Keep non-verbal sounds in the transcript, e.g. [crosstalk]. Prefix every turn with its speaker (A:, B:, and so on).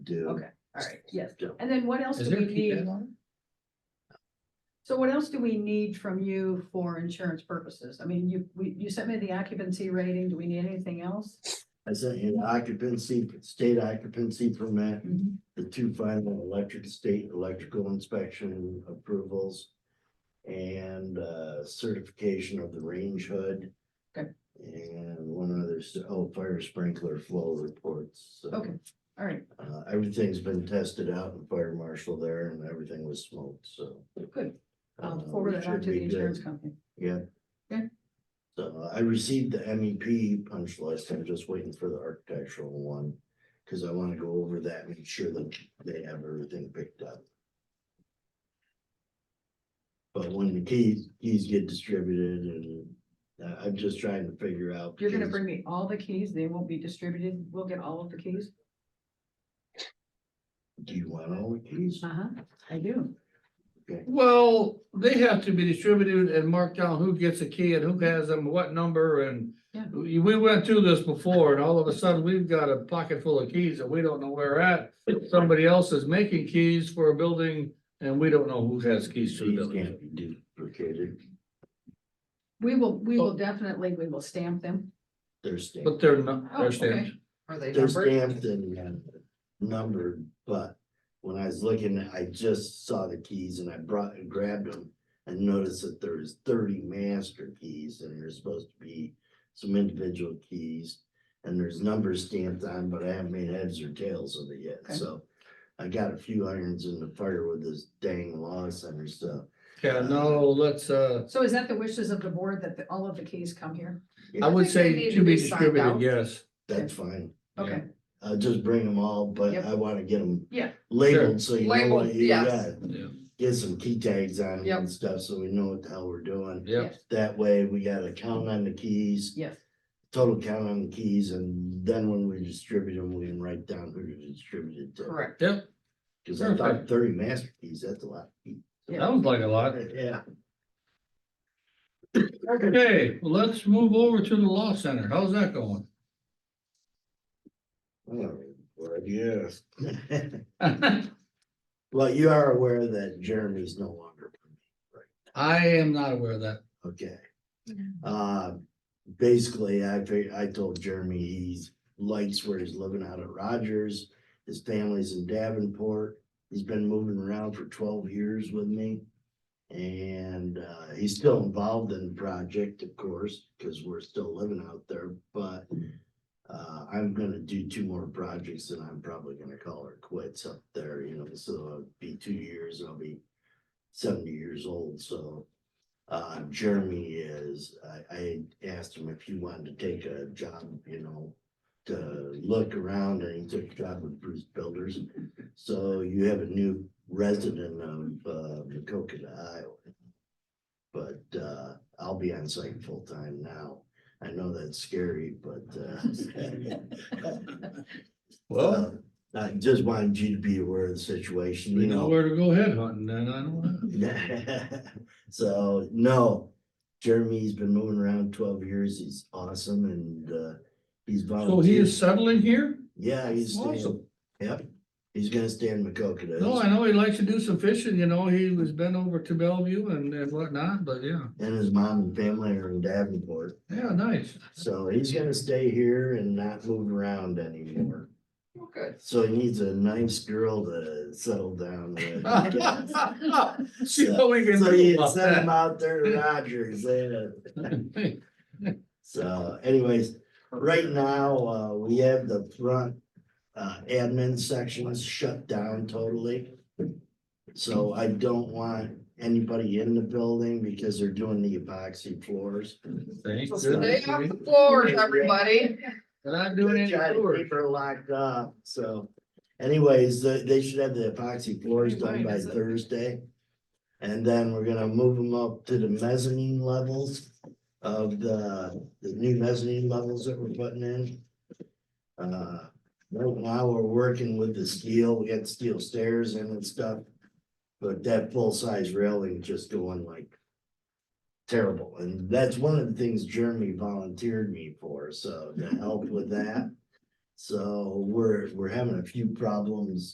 A: do.
B: Okay, all right, yes.
A: do.
B: And then what else
C: Is
B: do we
C: there a key
B: need?
C: deadline?
B: So what else do we need from you for insurance purposes? I mean, you, we, you sent me the occupancy rating. Do we need anything else?
A: I sent you an occupancy, state occupancy permit,
B: Mhm.
A: the two final electric, state electrical inspection approvals. And uh certification of the range hood.
B: Okay.
A: And one other, s- oh, fire sprinkler flow reports. So,
B: Okay. All right,
A: Uh, everything's been tested out in fire marshal there and everything was smoked, so.
B: good. I'll
A: uh,
B: forward
A: we
B: it on
A: should
B: to the
A: be good.
B: insurance company.
A: Yeah.
B: Okay.
A: So I received the MEP punch list, I'm just waiting for the architectural one, cause I wanna go over that, make sure that they have everything picked up. But when the keys, keys get distributed and I, I'm just trying to figure out.
B: You're gonna
A: because
B: bring me all the keys. They won't be distributed. We'll get all of the keys.
A: Do you want all the keys?
B: Uh-huh, I do.
C: Well, they have to be distributed and marked down who gets a key and who has them, what number and.
B: Yeah.
C: We we went through this before and all of a sudden we've got a pocket full of keys that we don't know where at. Somebody else is making keys for a building and we don't know who has keys to the
A: Keys
C: building.
A: Can't be duplicated,
B: We will, we
C: Oh.
B: will definitely, we will stamp them.
A: they're stamped,
C: But they're not,
B: Oh,
C: they're
B: okay.
C: stamped.
D: Are they
A: they're
D: numbered?
A: stamped and numbered, but. When I was looking, I just saw the keys and I brought and grabbed them and noticed that there is thirty master keys and there's supposed to be. Some individual keys and there's numbers stamped on, but I haven't made heads or tails of it
B: Okay.
A: yet, so. I got a few irons in the fire with this dang law center stuff.
C: Yeah, no, let's, uh,
B: So is that the wishes of the board that the- all of the keys come here?
C: I would
D: think they
C: say
D: need
C: to
D: to
C: be
D: be signed
C: distributed,
D: out.
C: yes.
A: That's fine.
B: Okay,
A: I'll just bring them all, but
B: Yep.
A: I wanna get them.
B: Yeah.
A: Labeled so you know what
D: Labeled,
A: you
D: yes.
A: got.
C: Yeah,
A: get some key tags on it
D: Yep.
A: and stuff, so we know what the hell we're doing.
C: yeah.
B: yes,
A: That way, we got a count on the keys,
B: yes.
A: total count on the keys, and then when we distribute them, we can write down who to distribute it to.
D: Correct.
A: Cause I thought
C: Perfect.
A: thirty master keys, that's a lot.
C: That was like a lot.
A: [coughs] Yeah,
C: Okay, well, let's move over to the law center. How's that going? [laughs]
A: well, yes. Well, you are aware that Jeremy's no longer,
C: I am not aware of that.
A: okay. Uh, basically, I fig- I told Jeremy he's likes where he's living out at Rogers. His family's in Davenport. He's been moving around for twelve years with me. And uh, he's still involved in the project, of course, because we're still living out there, but. Uh, I'm gonna do two more projects and I'm probably gonna call it quits up there, you know, so it'll be two years, and I'll be. Seventy years old, so. Uh, Jeremy is, I, I asked him if he wanted to take a job, you know. To look around and he took a job with Bruce Builders. So you have a new resident of, uh, Macokota, Iowa. But, uh, I'll be on site full time now. I know that's scary, but, uh. [laughs]
C: Well,
A: I just wanted you to be aware of the situation,
C: we
A: you
C: know
A: know.
C: where to go head hunting, and I don't know.
A: [laughs] So, no, Jeremy's been moving around twelve years. He's awesome and, uh, he's
C: So he
A: volunteered.
C: is settling here?
A: Yeah, he's staying,
C: Awesome.
A: yep. He's gonna stay in Macokota.
C: No, I know he likes to do some fishing, you know, he was been over to Bellevue and, and whatnot, but yeah,
A: And his mom and family are in Davenport.
C: yeah,
A: [laughs]
C: nice. [laughs]
A: So he's gonna stay here and not move around anymore.
D: Well, good.
A: So he needs a nice girl to settle down with.
C: [laughs] See what we can
A: So
C: do
A: you
C: about
A: send him
C: that.
A: out there to Rogers, yeah.
C: [laughs] Hey,
A: So anyways, right now, uh, we have the front, uh, admin sections shut down totally. So I don't want anybody in the building because they're doing the epoxy floors.
C: thank
A: So
C: goodness
D: Stay
C: for
D: off
C: me.
D: the floors, everybody.
C: And I'm doing any
A: Try to
C: tours.
A: keep her locked up, so anyways, they, they should have the epoxy floors done
B: Mine
A: by
B: isn't.
A: Thursday. And then we're gonna move them up to the mezzanine levels of the, the new mezzanine levels that we're putting in. Uh, right now, we're working with the steel, we got steel stairs in and stuff. But that full-size railing just going like terrible, and that's one of the things Jeremy volunteered me for, so to help with that. So we're, we're having a few problems